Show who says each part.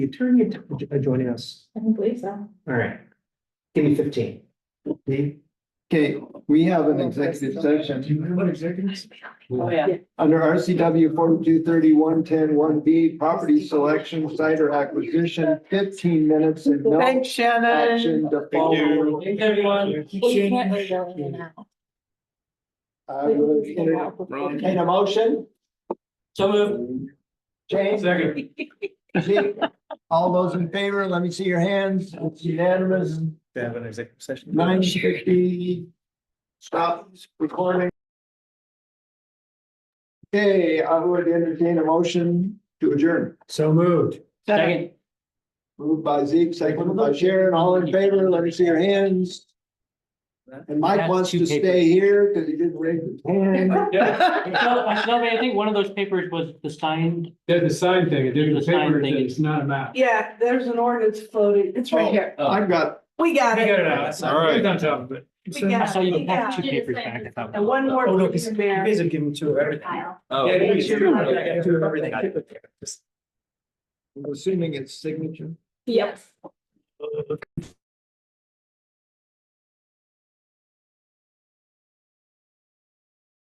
Speaker 1: the attorney to- joining us?
Speaker 2: I don't believe so.
Speaker 1: All right. Give me fifteen. Dave?
Speaker 3: Okay, we have an executive session
Speaker 1: Uh, you have an executive?
Speaker 2: Oh, yeah.
Speaker 3: under RCW forty-two thirty-one ten one B, property selection, site or acquisition, fifteen minutes and no
Speaker 4: Thanks, Shannon.
Speaker 3: action to follow.
Speaker 1: Thanks, everyone.
Speaker 2: We can't really go in and out.
Speaker 3: I would enter- entertain a motion.
Speaker 1: So moved.
Speaker 3: James,
Speaker 1: Second.
Speaker 3: Zeke, all those in favor, let me see your hands. It's unanimous.
Speaker 1: To have an executive session.
Speaker 3: Nine fifty. Stop recording. Okay, I would entertain a motion to adjourn.
Speaker 1: So moved.
Speaker 4: Second.
Speaker 3: Moved by Zeke, seconded by Sharon, all in favor, let me see your hands. And Mike wants to stay here because he didn't raise his hand.
Speaker 5: No, I no, I think one of those papers was the signed,
Speaker 6: Did the sign thing, it did the
Speaker 5: The sign
Speaker 6: paper,
Speaker 5: thing
Speaker 6: thing,
Speaker 5: is-
Speaker 6: it's not a map.
Speaker 4: Yeah, there's an ordinance floating. It's right here.
Speaker 3: I've got,
Speaker 4: Oh. We got
Speaker 6: I got
Speaker 4: it.
Speaker 6: it out.
Speaker 1: All right.
Speaker 6: It's on top of it.
Speaker 4: We got
Speaker 5: I saw you
Speaker 4: it. We
Speaker 5: had
Speaker 4: got
Speaker 5: two
Speaker 4: it.
Speaker 5: papers back. I thought.
Speaker 4: And one more.
Speaker 1: Oh, no,
Speaker 4: for
Speaker 1: because
Speaker 4: you,
Speaker 1: you
Speaker 4: Mayor.
Speaker 1: guys have given two of everything.
Speaker 6: Oh.
Speaker 1: Yeah, you
Speaker 4: Sure.
Speaker 1: do. I got two of everything.
Speaker 3: I'm assuming it's signature.
Speaker 2: Yes.